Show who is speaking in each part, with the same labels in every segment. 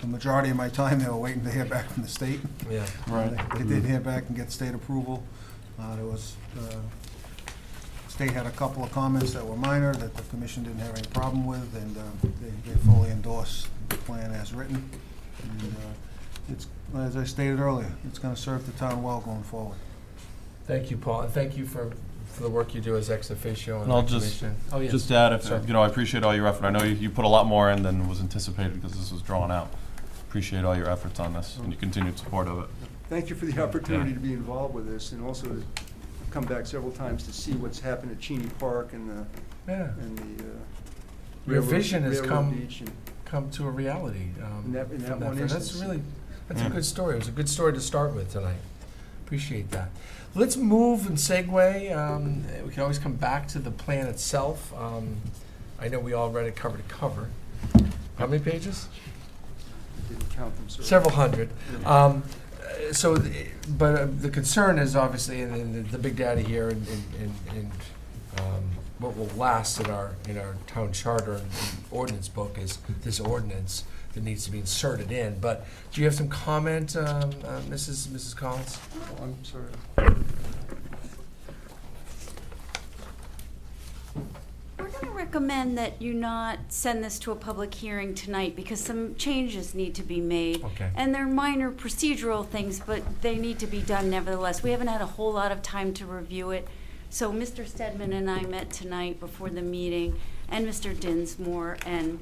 Speaker 1: the majority of my time, they were waiting to hear back from the state.
Speaker 2: Yeah.
Speaker 3: Right.
Speaker 1: They did hear back and get state approval. Uh, There was, uh, state had a couple of comments that were minor that the commission didn't have any problem with, and uh, they they fully endorsed the plan as written. And uh, It's, as I stated earlier, it's going to serve the town well going forward.
Speaker 2: Thank you, Paul, and thank you for, for the work you do as ex officio and
Speaker 3: And I'll just-
Speaker 2: reclamation. Oh, yes.
Speaker 3: Just add, if,
Speaker 2: Sure.
Speaker 3: you know, I appreciate all your effort. I know you, you put a lot more in than was anticipated because this was drawn out. Appreciate all your efforts on this and your continued support of it.
Speaker 4: Thank you for the opportunity to be involved with this and also to come back several times to see what's happened at Cheney Park and the,
Speaker 2: Yeah,
Speaker 4: and the. uh,
Speaker 2: Your
Speaker 4: Railroad-
Speaker 2: vision has
Speaker 4: Railroad
Speaker 2: come-
Speaker 4: Beach and-
Speaker 2: come to a reality. um,
Speaker 4: In that- in
Speaker 2: from
Speaker 4: that one
Speaker 2: That's
Speaker 4: instance.
Speaker 2: really, that's a
Speaker 3: Yeah.
Speaker 2: good story. It was a good story to start with tonight. Appreciate that. Let's move and segue. um, We can always come back to the plan itself. Um, I know we all read it cover to cover. How many pages?
Speaker 4: I Didn't count them, sir.
Speaker 2: Several hundred.
Speaker 4: Yeah.
Speaker 2: Um, uh, So, th- but uh, the concern is obviously, and- and the- the big data here, and, and- and- and um, what will last in our, in our town charter and ordinance book is this ordinance that needs to be inserted in. But do you have some comment, um, uh, Mrs. Mrs. Collins?
Speaker 4: Oh, I'm sorry.
Speaker 5: We're going to recommend that you not send this to a public hearing tonight because some changes need to be made.
Speaker 2: Okay.
Speaker 5: And they're minor procedural things, but they need to be done nevertheless. We haven't had a whole lot of time to review it. So Mr. Stedman and I met tonight before the meeting, and Mr. Dinsmore, and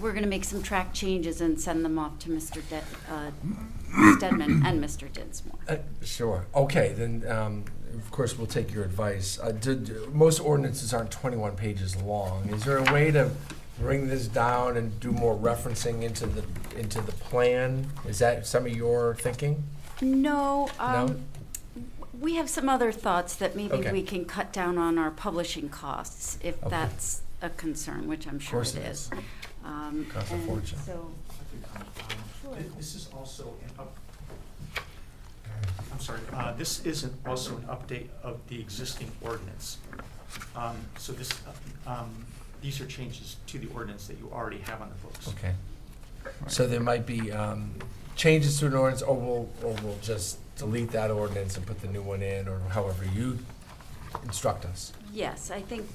Speaker 5: we're going to make some track changes and send them off to Mr. De- uh, Stedman and Mr. Dinsmore.
Speaker 2: Uh, Sure, okay, then, um, of course, we'll take your advice. Uh, did- Most ordinances aren't 21 pages long. Is there a way to bring this down and do more referencing into the, into the plan? Is that some of your thinking?
Speaker 5: No, um, we have some other thoughts that maybe
Speaker 2: Okay.
Speaker 5: we can cut down on our publishing costs, if
Speaker 2: Okay.
Speaker 5: that's a concern, which I'm
Speaker 2: Of
Speaker 5: sure
Speaker 2: course
Speaker 5: it
Speaker 2: it is.
Speaker 5: is. Um,
Speaker 2: Costs a
Speaker 5: and
Speaker 2: fortune.
Speaker 5: So,
Speaker 6: Um, thi- This is also an up, I'm sorry, uh, this is an- also an update of the existing ordinance. Um, So this, uh, um, these are changes to the ordinance that you already have on the books.
Speaker 2: Okay. So there might be um, changes to an ordinance, or we'll, or we'll just delete that ordinance and put the new one in, or however you instruct us.
Speaker 5: yes, I think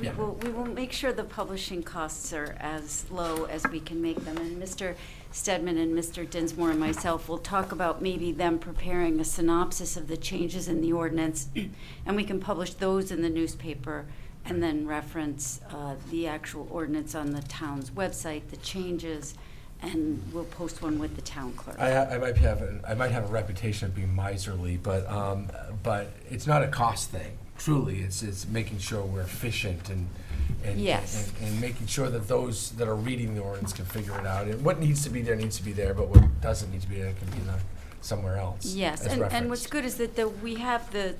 Speaker 5: we
Speaker 2: Yeah.
Speaker 5: will, we will make sure the publishing costs are as low as we can make them. And Mr. Stedman and Mr. Dinsmore and myself will talk about maybe them preparing a synopsis of the changes in the ordinance, and we can publish those in the newspaper and then reference uh, the actual ordinance on the town's website, the changes, and we'll post one with the town clerk.
Speaker 2: I, ha- I might have a, I might have a reputation of being miserly, but um, but it's not a cost thing. Truly, it's it's making sure we're efficient and and,
Speaker 5: Yes.
Speaker 2: and, and making sure that those that are reading the ordinance can figure it out. And what needs to be there needs to be there, but what doesn't need to be there can be there somewhere else.
Speaker 5: Yes,
Speaker 2: as
Speaker 5: and, and what's
Speaker 2: reference.
Speaker 5: good is that the, we have the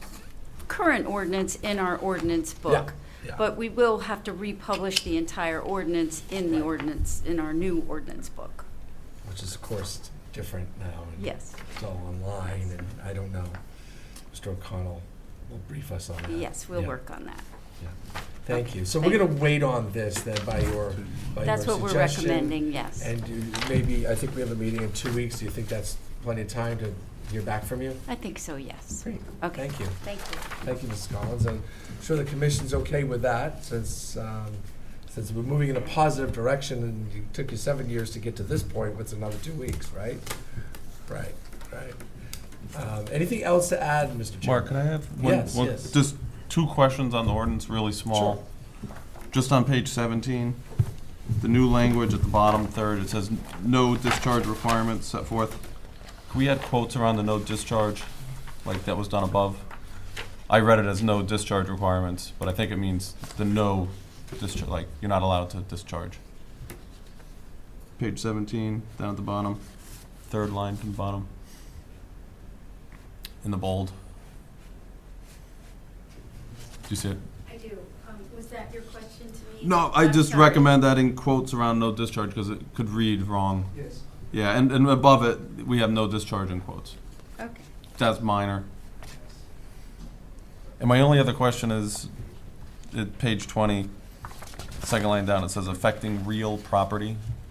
Speaker 5: current ordinance in our ordinance book.
Speaker 2: yeah.
Speaker 5: But we will have to republish the entire ordinance in the
Speaker 2: Right.
Speaker 5: ordinance, in our new ordinance book.
Speaker 2: which is of course different now. And
Speaker 5: Yes,
Speaker 2: it's all online, and I don't know. Mr. O'Connell will brief us on that.
Speaker 5: yes, we'll
Speaker 2: Yeah.
Speaker 5: work on that.
Speaker 2: Thank you. So
Speaker 5: Thank
Speaker 2: we're going to wait on this then by your by
Speaker 5: That's
Speaker 2: your
Speaker 5: what we're
Speaker 2: suggestion.
Speaker 5: recommending, yes.
Speaker 2: And do you- maybe, I think we have a meeting in two weeks. Do you think that's plenty of time to hear back from you?
Speaker 5: I think so, yes.
Speaker 2: Great.
Speaker 5: Okay,
Speaker 2: Thank you.
Speaker 5: thank you.
Speaker 2: Thank you, Mrs. Collins. I'm sure the commission's okay with that since, um, since we're moving in a positive direction and you took you seven years to get to this point, what's another two weeks, right? Right, right. Um, Anything else to add, Mr. Chairman?
Speaker 3: Mark, can I have one,
Speaker 2: Yes,
Speaker 3: one-
Speaker 2: yes.
Speaker 3: just two questions on the ordinance, really small. Just on page 17, the new language at the bottom third, it says no discharge requirements set forth. Can we add quotes around the no discharge, like that was done above? I read it as no discharge requirements, but I think it means the no discharge, like you're not allowed to discharge. Page 17, down at the bottom, third line from the bottom, in the bold. Do you see it?
Speaker 7: I do. Um, was that your question to me?
Speaker 3: No, I
Speaker 7: I'm
Speaker 3: just
Speaker 7: sorry.
Speaker 3: recommend adding quotes around no discharge because it could read wrong.
Speaker 4: Yes.
Speaker 3: Yeah, and, and above it, we have no discharge in quotes.
Speaker 5: Okay.
Speaker 3: That's minor. And my only other question is, at page 20, second line down, it says affecting real property.